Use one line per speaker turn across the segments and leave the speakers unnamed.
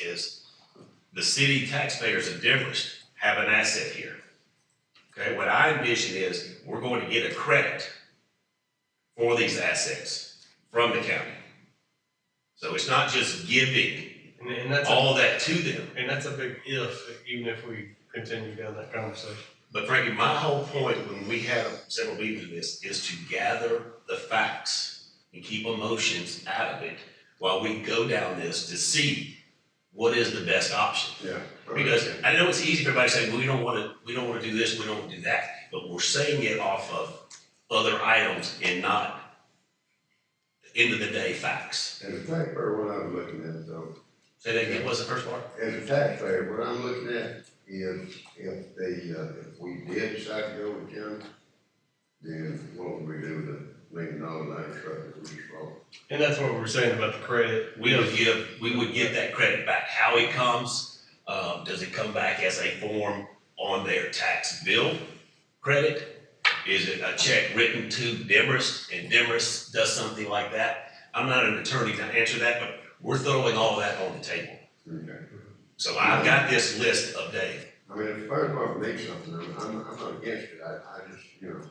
is the city taxpayers of Demorest have an asset here. Okay, what I envision is we're going to get a credit for these assets from the county. So it's not just giving
And, and that's a,
all that to them.
and that's a big if, even if we continue down that conversation.
But Frankie, my whole point when we had several meetings of this is to gather the facts and keep emotions out of it while we go down this to see what is the best option.
Yeah.
Because I know it's easy for everybody to say, well, we don't wanna, we don't wanna do this, we don't wanna do that, but we're saying it off of other items and not end of the day facts.
As a taxpayer, what I'm looking at though,
Say that again, what's the first part?
as a taxpayer, what I'm looking at is if the, uh, if we did decide to go with Jim, then what would we do with the million dollar line truck that we just bought?
And that's what we were saying about the credit.
We would give, we would give that credit back, how it comes, um, does it come back as a form on their tax bill credit? Is it a check written to Demarest and Demarest does something like that? I'm not an attorney to answer that, but we're throwing all that on the table.
Okay.
So I've got this list of Dave.
I mean, if the fire department makes something, I'm, I'm, I'm not against it, I, I just, you know,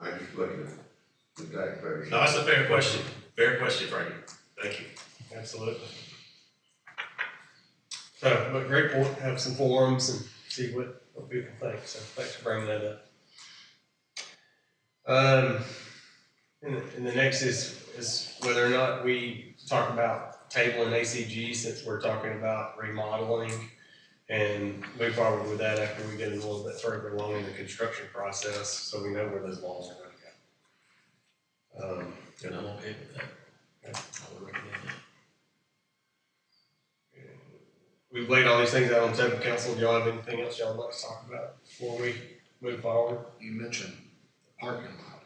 I just looking at the taxpayers.
No, that's a fair question. Fair question, Frankie. Thank you.
Absolutely. So, but great point, have some forums and see what, what people think, so thanks for bringing that up. Um, and, the- and the next is, is whether or not we talk about tabling ACG since we're talking about remodeling and move forward with that after we get a little bit further along in the construction process, so we know where those walls are gonna go. Um,
And I'm okay with that. I would recommend that.
We've laid all these things out on the table, council, do y'all have anything else y'all would like to talk about before we move forward?
you mentioned the parking lot.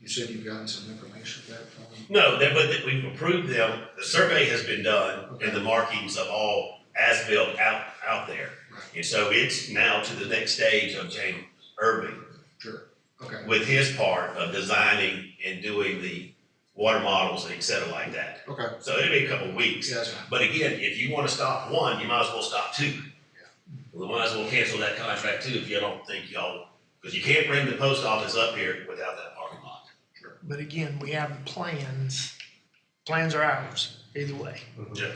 You said you've gotten some information back from them?
No, that, but that we've approved them, the survey has been done, and the markings of all as-built out, out there. And so it's now to the next stage of James Irving
Sure. Okay,
with his part of designing and doing the water models and et cetera like that.
okay.
So it'll be a couple of weeks.
Yeah, that's fine.
But again, if you wanna stop one, you might as well stop two. We might as well cancel that contract too, if you don't think y'all, because you can't bring the post office up here without that parking lot.
But again, we have the plans. Plans are ours, either way.
Yeah.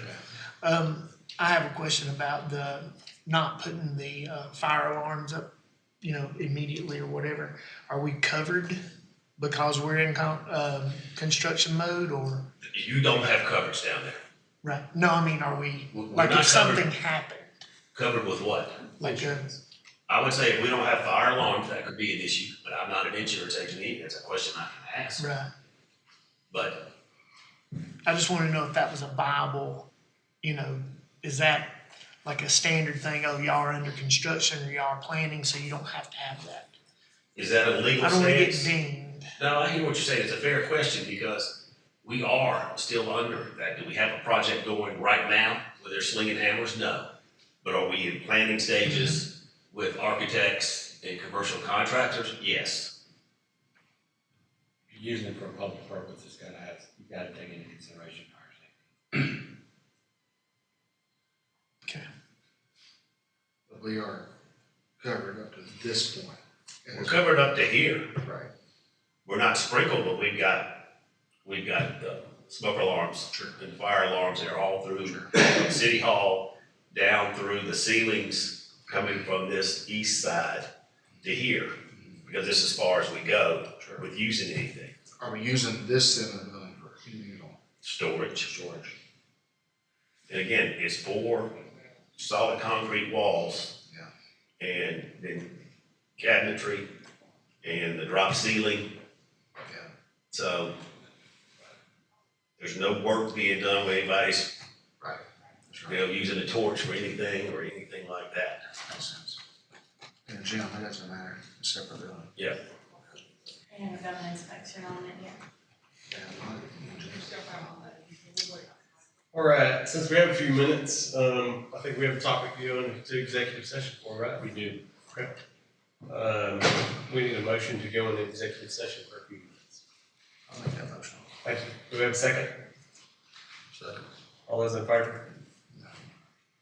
Um, I have a question about the not putting the uh, fire alarms up, you know, immediately or whatever. Are we covered because we're in con- um, construction mode or,
You don't have coverage down there.
right? No, I mean, are we,
We're
like
not
if something
covered.
happened,
Covered with what?
like uh, a,
I would say if we don't have fire alarms, that could be an issue, but I'm not an insurance agent either, that's a question I can ask.
right?
But
I just wanted to know if that was a viable, you know, is that like a standard thing? Oh, y'all are under construction or y'all are planning, so you don't have to have that.
is that a legal
I don't want to get
stance?
dinged.
No, I hear what you're saying, it's a fair question because we are still under that. Do we have a project going right now where they're slinging hammers? No. But are we in planning stages with architects and commercial contractors? Yes.
usually for a public purpose, it's gotta have, you gotta take into consideration fire safety.
Okay.
But we are covered up to this point. And
We're
it's-
covered up to here.
Right,
we're not sprinkled, but we've got, we've got the smoke alarms
Sure.
and fire alarms, they're all through
Sure.
from City Hall, down through the ceilings, coming from this east side to here, because this is as far as we go
Mm-hmm. sure.
with using anything,
Are we using this then as a for communal
storage.
storage?
And again, it's four solid concrete walls.
Yeah.
And then cabinetry and the drop ceiling,
Yeah,
so there's no work being done with anybody's
right. That's
you
right.
know, using a torch for anything or anything like that.
Makes sense. And Jim, it doesn't matter, it's separate building.
Yeah.
And we've got an inspection on it, yeah.
All right, since we have a few minutes, um, I think we have a topic to go into executive session for, right? We do. Okay. Um, we need a motion to go into executive session for a few minutes.
I'll make that motion.
Thank you. Do we have a second?
Second.
All those in favor?